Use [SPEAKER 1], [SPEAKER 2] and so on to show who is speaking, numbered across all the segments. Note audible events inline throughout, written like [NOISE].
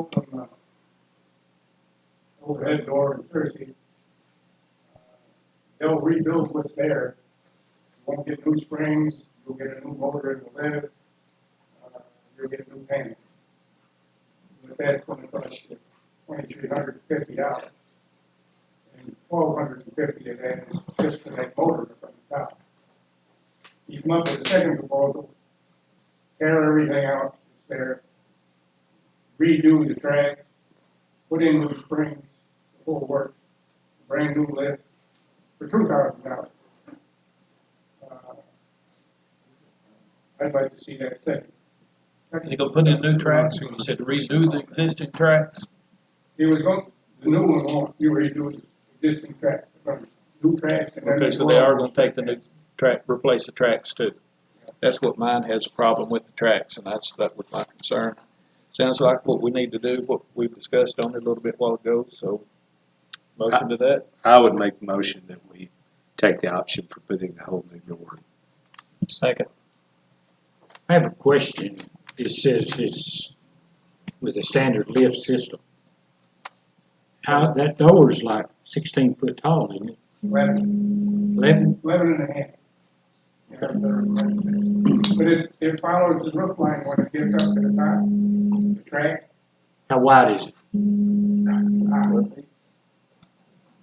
[SPEAKER 1] open uh, overhead door on Thursday. They'll rebuild what's there. Won't get new springs, you'll get a new motor in the lift, uh, you'll get new paint. But that's gonna cost you twenty-three hundred and fifty dollars. And twelve hundred and fifty of that is just for that motor from the top. You come up with a second proposal, tear everything out that's there, redo the track, put in new springs, the whole work, brand new lift, for two thousand dollars. Uh, I'd like to see that second.
[SPEAKER 2] They gonna put in new tracks, or you said redo the existing tracks?
[SPEAKER 1] He was going, the new one won't, you already do the existing tracks, but new tracks and then.
[SPEAKER 2] Okay, so they are gonna take the new track, replace the tracks too. That's what mine has a problem with, the tracks, and that's, that was my concern. Sounds like what we need to do, what we've discussed on it a little bit while ago, so motion to that.
[SPEAKER 3] I would make the motion that we take the option for putting the whole new door.
[SPEAKER 2] Second.
[SPEAKER 4] I have a question. It says it's with a standard lift system. How, that door's like sixteen foot tall, isn't it?
[SPEAKER 1] Eleven,
[SPEAKER 4] Eleven?
[SPEAKER 1] eleven and a half. Yeah, they're- But it, it follows the roof line when it gets up to the top, the track,
[SPEAKER 4] How wide is it?
[SPEAKER 1] obviously.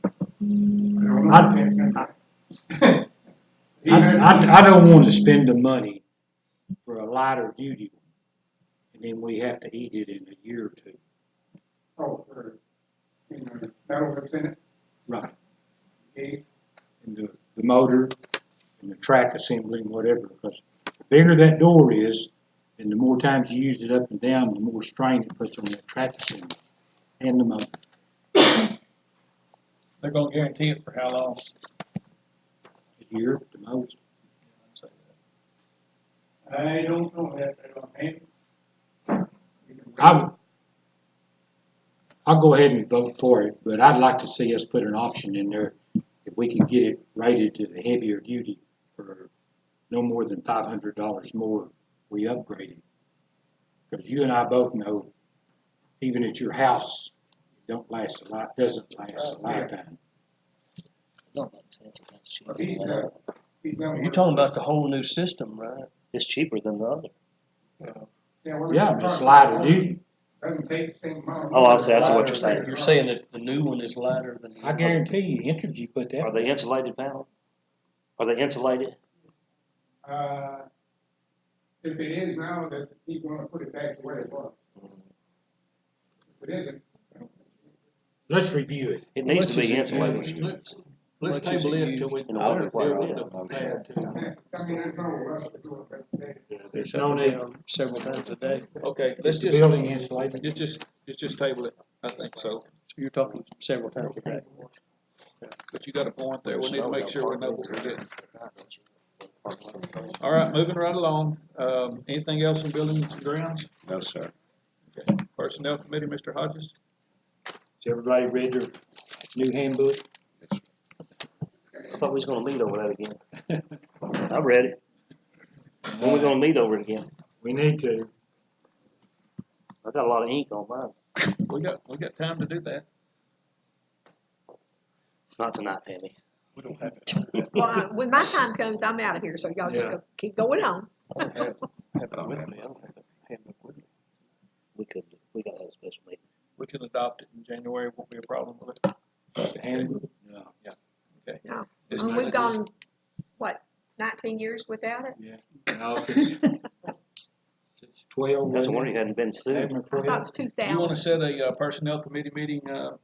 [SPEAKER 1] I don't know.
[SPEAKER 4] I, I, I don't wanna spend the money for a lighter duty one. And then we have to eat it in a year or two.
[SPEAKER 1] Oh, for, you know, metal that's in it,
[SPEAKER 4] Right.
[SPEAKER 1] gauge,
[SPEAKER 4] And the, the motor and the track assembly and whatever, because the bigger that door is, and the more times you use it up and down, the more strain it puts on that track assembly and the motor.
[SPEAKER 2] They're gonna guarantee it for how long?
[SPEAKER 4] a year at the most.
[SPEAKER 1] I don't know that, I don't think.
[SPEAKER 4] I, I'll go ahead and vote for it, but I'd like to see us put an option in there if we can get it rated to the heavier duty for no more than five hundred dollars more, we upgrade it. Because you and I both know, even at your house, it don't last a lot, doesn't last a lifetime.
[SPEAKER 5] Don't make sense if that's cheaper
[SPEAKER 1] He's,
[SPEAKER 5] than
[SPEAKER 1] uh,
[SPEAKER 5] that.
[SPEAKER 1] he's not-
[SPEAKER 5] You're talking about the whole new system, right? It's cheaper than the other.
[SPEAKER 1] we're-
[SPEAKER 4] Yeah, but it's lighter duty.
[SPEAKER 1] Doesn't take the same amount.
[SPEAKER 5] Oh, I see, I see what you're
[SPEAKER 1] Lighter,
[SPEAKER 5] saying.
[SPEAKER 1] lighter.
[SPEAKER 5] You're saying that the new one is lighter than the
[SPEAKER 4] I guarantee you, Entergy put
[SPEAKER 5] Are
[SPEAKER 4] that,
[SPEAKER 5] they insulated panel? Are they insulated?
[SPEAKER 1] Uh, if it is now, that he's gonna put it back to where it was. If it isn't,
[SPEAKER 4] let's review it.
[SPEAKER 5] It needs to be insulated.
[SPEAKER 6] Let's- Let's table it till we.
[SPEAKER 5] And I would require a motion.
[SPEAKER 1] I mean, there's no rush to do it, but they-
[SPEAKER 4] There's no need.
[SPEAKER 2] Several times a day. Okay, let's
[SPEAKER 4] The
[SPEAKER 2] just,
[SPEAKER 4] Building insulated.
[SPEAKER 2] let's just, let's just table it, I think so.
[SPEAKER 5] You're talking several times a day.
[SPEAKER 2] But you got a point there, we need to make sure we know what we're doing. All right, moving right along, um, anything else in buildings and grounds?
[SPEAKER 3] No, sir.
[SPEAKER 2] Personnel committee, Mr. Hodges?
[SPEAKER 4] Has everybody read their new handbook?
[SPEAKER 5] I thought we was gonna meet over that again. I read it. When we gonna meet over it again?
[SPEAKER 4] We need to.
[SPEAKER 5] I got a lot of ink on mine.
[SPEAKER 2] We got, we got time to do that.
[SPEAKER 5] Not tonight, Tammy. [LAUGHS] We don't have it.
[SPEAKER 7] Well, I- when my time comes, I'm out of here, so y'all just
[SPEAKER 4] Yeah.
[SPEAKER 7] go, keep going on.
[SPEAKER 5] I don't have, have it with me. I don't have it handbook with me. We could, we gotta have a special meeting.
[SPEAKER 2] We can adopt it in January, won't be a problem with it.
[SPEAKER 4] handbook?
[SPEAKER 2] Yeah, okay.
[SPEAKER 7] No.
[SPEAKER 2] It's
[SPEAKER 7] And
[SPEAKER 2] not-
[SPEAKER 7] We've gone, what, nineteen years without it?
[SPEAKER 4] No, since, since twelve.
[SPEAKER 5] That's
[SPEAKER 4] wasn't
[SPEAKER 5] why
[SPEAKER 4] it?
[SPEAKER 5] you hadn't been sued.
[SPEAKER 4] Haven't
[SPEAKER 7] I thought it
[SPEAKER 4] approved.
[SPEAKER 7] was two
[SPEAKER 2] You wanna
[SPEAKER 7] thousand.
[SPEAKER 2] set a uh, personnel committee meeting, uh,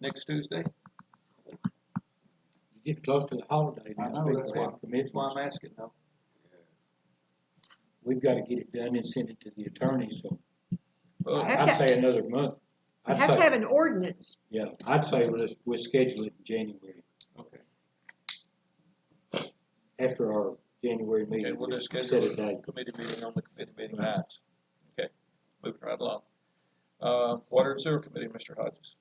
[SPEAKER 2] next Tuesday?
[SPEAKER 4] You get close to the holiday
[SPEAKER 2] I
[SPEAKER 4] now,
[SPEAKER 2] know,
[SPEAKER 4] people
[SPEAKER 2] that's why-
[SPEAKER 4] have
[SPEAKER 2] That's why
[SPEAKER 4] commitments.
[SPEAKER 2] I'm asking though.
[SPEAKER 4] We've gotta get it done and send it to the attorney, so
[SPEAKER 2] Well,
[SPEAKER 7] Have
[SPEAKER 4] I'd
[SPEAKER 7] to-
[SPEAKER 4] say another month.
[SPEAKER 7] You
[SPEAKER 4] I'd
[SPEAKER 7] have to
[SPEAKER 4] say,
[SPEAKER 7] have an ordinance.
[SPEAKER 4] yeah, I'd say we'll, just- we'll schedule it in January,
[SPEAKER 2] okay,
[SPEAKER 4] after our January
[SPEAKER 2] okay,
[SPEAKER 4] meeting.
[SPEAKER 2] we'll just
[SPEAKER 4] Set
[SPEAKER 2] schedule
[SPEAKER 4] a
[SPEAKER 2] a
[SPEAKER 4] date.
[SPEAKER 2] committee meeting on the committee meeting nights. Okay, moving right along. Uh, water and sewer committee, Mr. Hodges.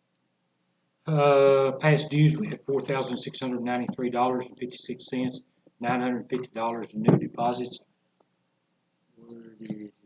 [SPEAKER 4] Uh, past dues, we had four thousand six hundred ninety-three dollars and fifty-six cents, nine hundred fifty dollars in new deposits. Where did